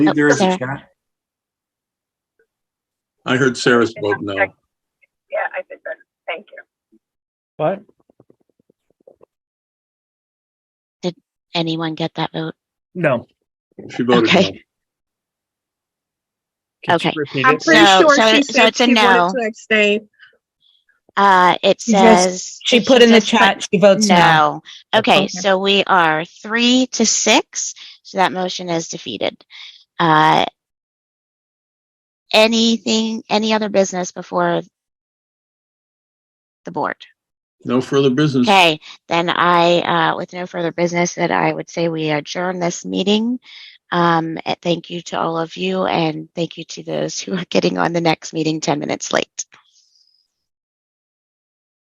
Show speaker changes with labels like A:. A: believe there is a
B: Okay.
A: chat.
C: I heard Sarah's vote no.
D: Yeah, I did that. Thank you.
E: What?
B: Anyone get that vote?
E: No.
C: She voted no.
B: Okay.
E: Can you
B: Okay.
E: repeat
D: I'm
E: it?
D: pretty
B: No,
D: sure
B: so-
D: she
B: so
D: said
B: it's a
D: she
B: no.
D: wanted to abstain.
B: Uh, it
F: She just-
B: says.
F: She put in the
B: just put
F: chat, she votes no.
B: No. Okay,
F: Okay.
B: so we are three to six, so that motion is defeated. Uh, Anything, any other business before the board?
C: No further business.
B: Okay, then I, uh, with no further business, that I would say we adjourn this meeting. Um, and thank you to all of you and thank you to those who are getting on the next meeting ten minutes late.